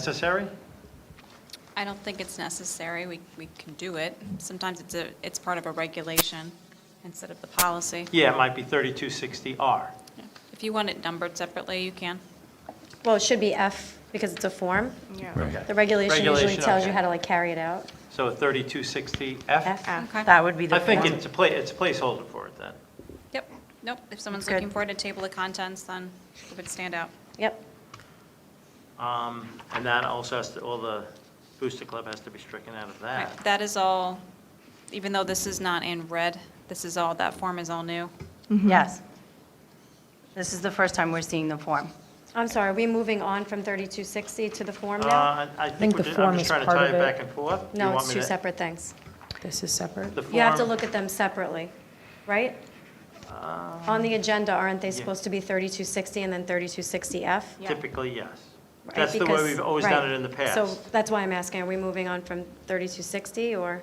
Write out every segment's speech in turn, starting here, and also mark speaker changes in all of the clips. Speaker 1: Necessary?
Speaker 2: I don't think it's necessary. We, we can do it. Sometimes it's a, it's part of a regulation instead of the policy.
Speaker 1: Yeah, it might be 3260R.
Speaker 2: If you want it numbered separately, you can.
Speaker 3: Well, it should be F because it's a form.
Speaker 1: Right.
Speaker 3: The regulation usually
Speaker 1: Regulation,
Speaker 3: tells you
Speaker 1: okay.
Speaker 3: how to like carry it out.
Speaker 1: So a 3260F?
Speaker 3: F.
Speaker 2: Okay.
Speaker 4: That would be the.
Speaker 1: I think
Speaker 4: form.
Speaker 1: it's a pla, it's a placeholder for it then.
Speaker 2: Yep. Nope. If someone's
Speaker 4: Good.
Speaker 2: looking for it, a table of contents, then it would stand out.
Speaker 3: Yep.
Speaker 1: Um, And that also has to, all the Booster Club has to be stricken out of
Speaker 2: Right,
Speaker 1: that.
Speaker 2: That is all, even though this is not in red, this is all, that form is all new.
Speaker 4: Yes. This is the first time we're seeing the form.
Speaker 3: I'm sorry, are we moving on from 3260 to the form now?
Speaker 1: Uh, I I think,
Speaker 5: think the
Speaker 1: we're ju-
Speaker 5: form
Speaker 1: I'm just
Speaker 5: is
Speaker 1: trying to
Speaker 5: part
Speaker 1: tie
Speaker 5: of
Speaker 1: it
Speaker 5: it.
Speaker 1: back and forth. Do you
Speaker 3: No,
Speaker 1: want
Speaker 3: it's
Speaker 1: me
Speaker 3: two
Speaker 1: to-
Speaker 3: separate things.
Speaker 5: This is separate.
Speaker 1: The
Speaker 3: You have to
Speaker 1: form-
Speaker 3: look at them separately, right?
Speaker 1: Um,
Speaker 3: On the agenda, aren't they supposed to be 3260 and then 3260F?
Speaker 2: Yeah.
Speaker 1: Typically, yes.
Speaker 3: Right,
Speaker 1: That's the way
Speaker 3: because-
Speaker 1: we've always done
Speaker 3: right.
Speaker 1: it in the
Speaker 3: So
Speaker 1: past.
Speaker 3: that's why I'm asking, are we moving on from 3260, or,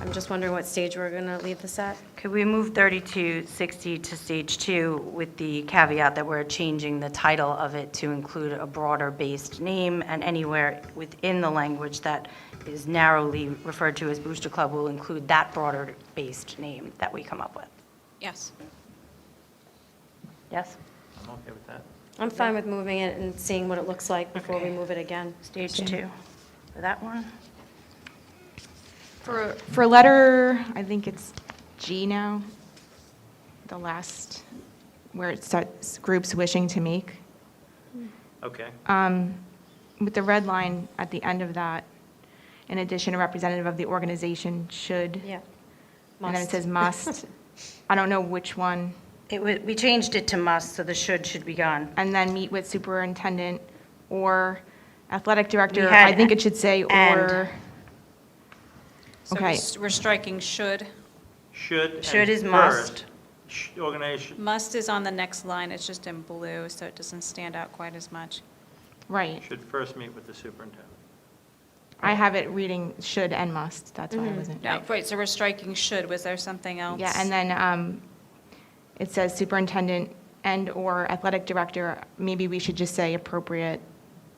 Speaker 3: I'm just wondering what stage we're going to leave this at?
Speaker 4: Could we move 3260 to stage two with the caveat that we're changing the title of it to include a broader-based name, and anywhere within the language that is narrowly referred to as Booster Club will include that broader-based name that we come up with?
Speaker 2: Yes.
Speaker 4: Yes?
Speaker 1: I'm okay with that.
Speaker 3: I'm fine with moving it and seeing what it looks like before we move it again.
Speaker 4: Stage two. For that one?
Speaker 6: For, for letter, I think it's G now, the last, where it starts, groups wishing to make.
Speaker 1: Okay.
Speaker 3: Uh,
Speaker 6: Um, With the red line at the end of that, in addition, a representative of the organization should.
Speaker 3: Yeah.
Speaker 6: And then it
Speaker 3: Must.
Speaker 6: says must. I don't know which one.
Speaker 4: It, wa- we changed it to must, so the should should be gone.
Speaker 6: And then meet with superintendent or athletic
Speaker 4: We
Speaker 6: director.
Speaker 4: had
Speaker 6: I think it should say
Speaker 4: and.
Speaker 6: or.
Speaker 2: So
Speaker 6: Okay.
Speaker 2: we're- we're striking should.
Speaker 1: Should and
Speaker 4: Should is
Speaker 1: first. Sh- Organization,
Speaker 2: Must is on the next line. It's just in blue, so it doesn't stand out quite as much.
Speaker 6: Right.
Speaker 1: should first meet with the superintendent.
Speaker 6: I have it reading should and must. That's
Speaker 4: Mm-hmm.
Speaker 6: why I wasn't.
Speaker 2: No, right, so we're striking should. Was there something else?
Speaker 6: Yeah, and then um, it says superintendent and/or athletic director. Maybe we should just say appropriate,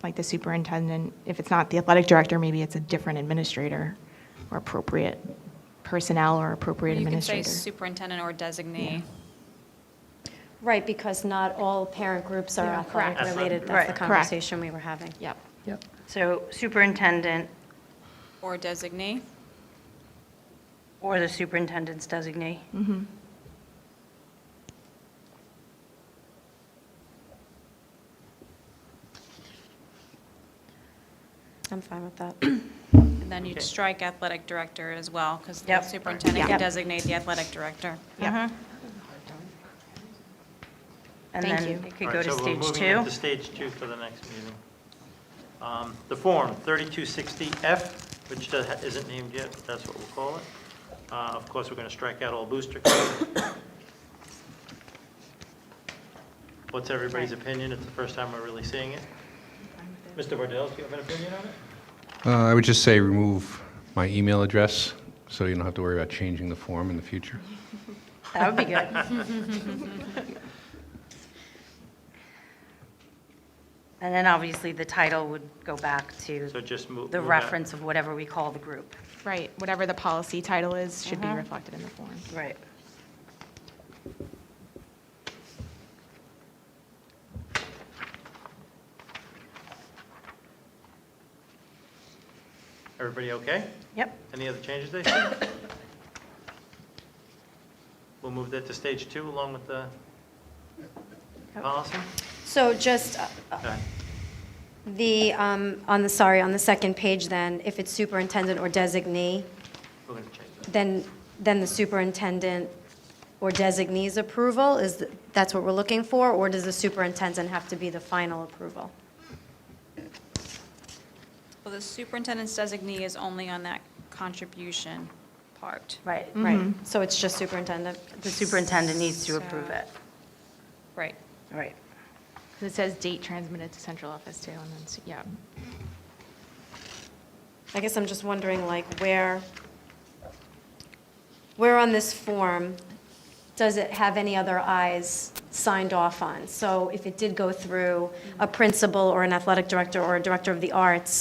Speaker 6: like the superintendent. If it's not the athletic director, maybe it's a different administrator or appropriate personnel or appropriate
Speaker 2: You can say
Speaker 6: administrator.
Speaker 2: superintendent or designee.
Speaker 3: Right, because not all parent groups are
Speaker 6: Yeah, correct.
Speaker 3: athletic related.
Speaker 4: Right,
Speaker 3: That's the
Speaker 4: correct.
Speaker 3: conversation we were having.
Speaker 6: Yep.
Speaker 5: Yep.
Speaker 4: So superintendent
Speaker 2: Or designee.
Speaker 4: or the superintendent's designee.
Speaker 2: Mm-hmm.
Speaker 3: I'm fine with that.
Speaker 2: And then you'd
Speaker 1: Okay.
Speaker 2: strike athletic director as well, because the
Speaker 4: Yep.
Speaker 2: superintendent can
Speaker 6: Yeah.
Speaker 2: designate the athletic director. Uh-huh.
Speaker 6: Yep.
Speaker 4: And
Speaker 6: Thank
Speaker 4: then
Speaker 6: you.
Speaker 4: it could
Speaker 1: All
Speaker 4: go
Speaker 1: right,
Speaker 4: to
Speaker 1: so we're
Speaker 4: stage
Speaker 1: moving
Speaker 4: two.
Speaker 1: into stage two for the next meeting. Um, The form, 3260F, which does- isn't named yet, but that's what we'll call it. Uh, Of course, we're going to strike out all booster club. What's everybody's opinion? It's the first time we're really seeing it. Mr. Bordeaux, do you have an opinion on it?
Speaker 7: Uh, I would just say remove my email address, so you don't have to worry about changing the form in the future.
Speaker 4: That would be good. And then obviously the title would go back
Speaker 1: So
Speaker 4: to
Speaker 1: just move.
Speaker 4: the
Speaker 1: move that.
Speaker 4: reference of whatever we call the group.
Speaker 6: Right, whatever the policy title is, should be
Speaker 2: Uh-huh.
Speaker 6: reflected in the form.
Speaker 4: Right.
Speaker 1: Everybody okay?
Speaker 4: Yep.
Speaker 1: Any other changes they see? We'll move that to stage two along with the policy?
Speaker 3: So just uh,
Speaker 1: Okay.
Speaker 3: the, um, on the, sorry, on the second page then, if it's superintendent or designee,
Speaker 1: We're going to change that.
Speaker 3: then, then the superintendent or designee's approval is, th- that's what we're looking for? Or does the superintendent have to be the final approval?
Speaker 2: Well, the superintendent's designee is only on that contribution part.
Speaker 3: Right, right.
Speaker 4: Mm-hmm.
Speaker 3: So it's just superintendent?
Speaker 4: The superintendent needs to approve
Speaker 2: So-
Speaker 4: it.
Speaker 2: Right.
Speaker 4: Right.
Speaker 6: 'Cause It says date transmitted to central office too, and then, s- yeah.
Speaker 3: I guess I'm just wondering, like, where, where on this form does it have any other eyes signed off on. So if it did go through a principal or an athletic director or a director of the arts,